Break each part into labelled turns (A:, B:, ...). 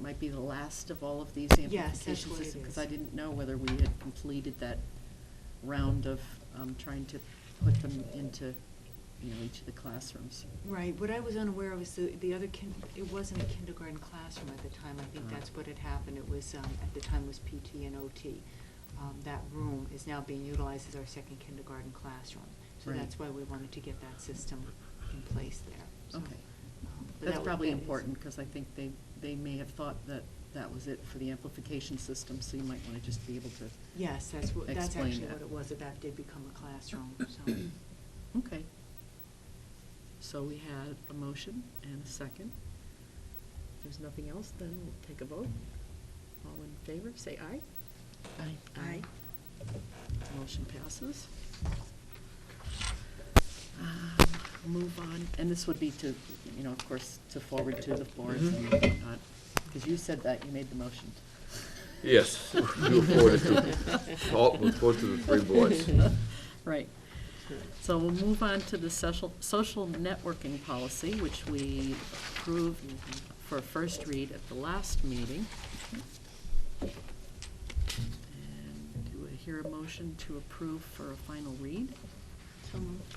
A: might be the last of all of these
B: Yes, that's
A: amplification
B: what it
A: systems, because
B: is.
A: I didn't know whether we had completed that round of um, trying to put them into, you know, each of the classrooms.
B: Right, what I was unaware of was the, the other kin, it wasn't a kindergarten classroom at the time, I think
A: Ah.
B: that's what had happened, it was, um, at the time was PT and OT. Um, that room is now being utilized as our second kindergarten classroom, so
A: Right.
B: that's why we wanted to get that system in place there, so.
A: Okay.
B: um, but that
A: That's
B: wa-
A: probably
B: that is-
A: important, because I think they, they may have thought that that was it for the amplification system, so you might want to just be able to,
B: Yes, that's what, that's
A: Explain
B: actually
A: that.
B: what it was, that that did become a classroom, so.
A: okay. So we had a motion and a second. If there's nothing else, then we'll take a vote. All in favor, say aye. Aye.
B: Aye.
A: Motion passes. Um, Move on, and this would be to, you know, of course, to forward to the boards
C: Mm-hmm.
A: and whatnot, because you said that, you made the motion.
C: Yes, you forward it to, all- we'll forward to the three boards.
A: Right. So we'll move on to the social, social networking policy, which we approved for first read at the last meeting. And do I hear a motion to approve for a final read?
B: So moved.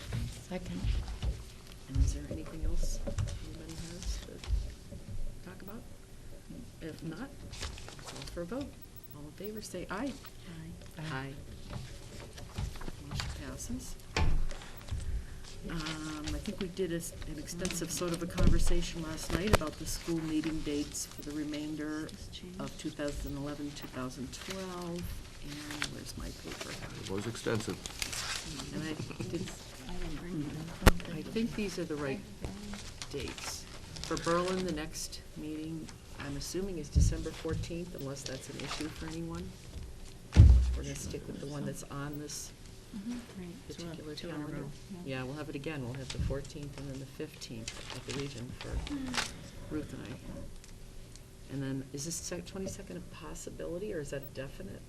A: Second. And is there anything else anybody has to talk about? If not, call for a vote. All in favor, say aye. Aye. Aye. Motion passes. Um, I think we did a s- an extensive sort of a conversation last night about the school meeting dates for the remainder
B: Just changed.
A: of 2011, 2012, and where's my paper?
C: It was extensive.
A: And I did I think these are the right dates. For Berlin, the next meeting, I'm assuming is December fourteenth, unless that's an issue for anyone. We're gonna stick with the one that's on this
B: Mm-hmm.
A: particular calendar. Yeah, we'll have it again, we'll have the fourteenth and then the fifteenth at the Legion for Ruth and I. And then, is this twenty-second a possibility, or is that a definite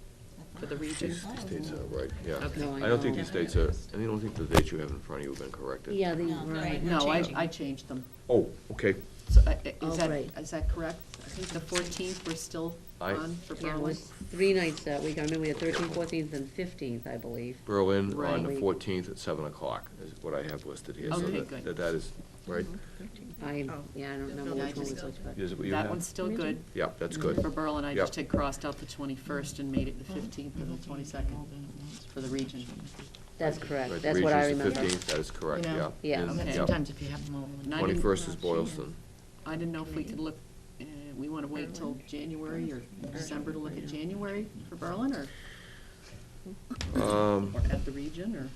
A: for the Region?
C: These these dates are right, yeah.
A: Okay. No, I
C: I don't think
A: know.
C: these dates are, I don't think the dates you have in front of you have been corrected.
D: Yeah, the,
E: No,
D: right.
E: right.
A: No, I,
E: changing.
A: I changed them.
C: Oh, okay.
A: So, uh, uh,
D: Oh,
A: is that,
D: right.
A: is that correct? I think the fourteenth, we're still
C: I-
A: on for
D: Yeah, it
A: Berlin?
D: was three nights that week. I remember we had thirteenth, fourteenth, and fifteenth, I believe.
C: Berlin on the
D: Right.
C: fourteenth at seven o'clock is what I have listed here. so
A: Okay,
C: that-
A: good.
C: that- That is, right,
D: I, yeah, I
E: Oh.
D: don't remember
A: Yeah, I
D: which one was
A: just-
D: which, but.
C: is it what you have?
A: That one's still good.
C: Yeah, that's
A: For
C: good.
A: Berlin, I just
C: Yep.
A: had crossed out the twenty-first and made it
E: Oh.
A: the fifteenth and the twenty-second for the region.
C: Oh.
D: That's correct.
C: Right,
D: That's what I
C: Regis
D: remember.
C: the fifteenth, that is correct,
E: You
C: yeah.
E: know,
D: Yeah.
C: And-
A: Okay.
C: yeah.
E: Sometimes if you have them all.
A: And I didn't-
C: Twenty-first is Boylston.
A: I didn't know if we could look, uh, we want to wait till January or December to look at January for Berlin or, Mm-hmm.
C: Um,
A: or at the region or?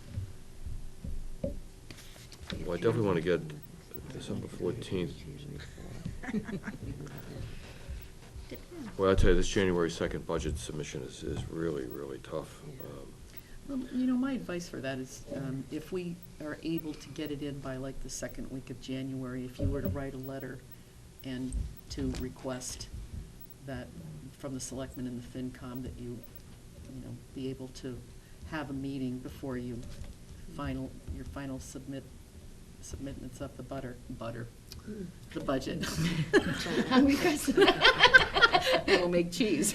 C: well, I definitely want to get December fourteenth. Well, I tell you, this January second budget submission is, is really, really tough. Um,
A: Well, you know, my advice for that is, um, if we are able to get it in by like the second week of January, if you were to write a letter and to request that, from the selectmen and the FinCom, that you, you know, be able to have a meeting before you final, your final submit, submittance of the butter, butter, the budget.
E: Oh,
D: Hungry person.
A: And we'll make cheese.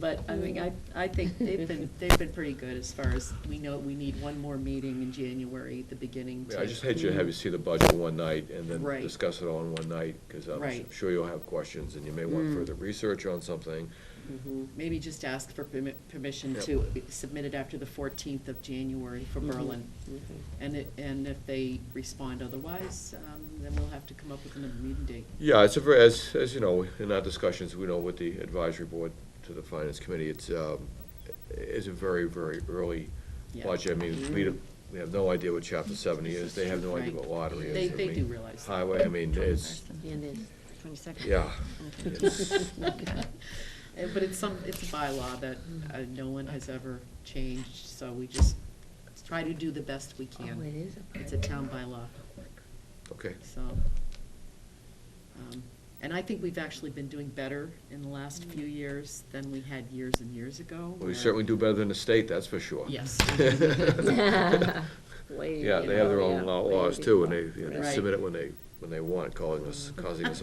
A: But, I mean, I, I think they've been, they've been pretty good as far as, we know we need one more meeting in January, the beginning
C: Yeah,
A: to.
C: I just hate you to have you see the budget one night and
A: Right.
C: then discuss it all in one night, because I'm
A: Right. Hmm.
C: sure you'll have questions, and you may want
D: Mm.
C: further research on something.
A: Mm-hmm. Maybe just ask for permi- permission
C: Yep.
A: to submit it after the fourteenth of January for Berlin. And it, and if they respond otherwise, um, then we'll have to come up with another meeting date.
C: Yeah, it's a, ver- as, as you know, in our discussions, we know with the advisory board to the finance committee, it's, um, it's a very, very early
A: Yeah. Hmm.
C: budget. I mean, we, don't- we have no idea what chapter seventy is, they have no idea
A: Right.
C: what lottery is.
A: They,
C: I
A: they
C: mean,
A: do realize that.
C: Highway, I mean, it's,
D: And it's,
E: Twenty-second.
C: yeah. it's-
A: Uh, But it's some, it's a bylaw that uh, no one has ever changed, so we just try to do the best we
D: oh, it
A: can.
D: is
A: It's a town bylaw,
C: Okay,
A: so. um, And I think we've actually been doing better in the last few years than we had years and years ago.
C: Well,
A: where-
C: we certainly do better than the state, that's for sure.
A: Yes.
D: a. Way
C: Yeah,
D: to
C: they have their
D: go,
C: own
D: yeah,
C: law-
D: way
C: laws
D: to
C: too, and
D: go.
C: they, you know,
A: Right.
C: they submit it when they, when they want, causing us, causing us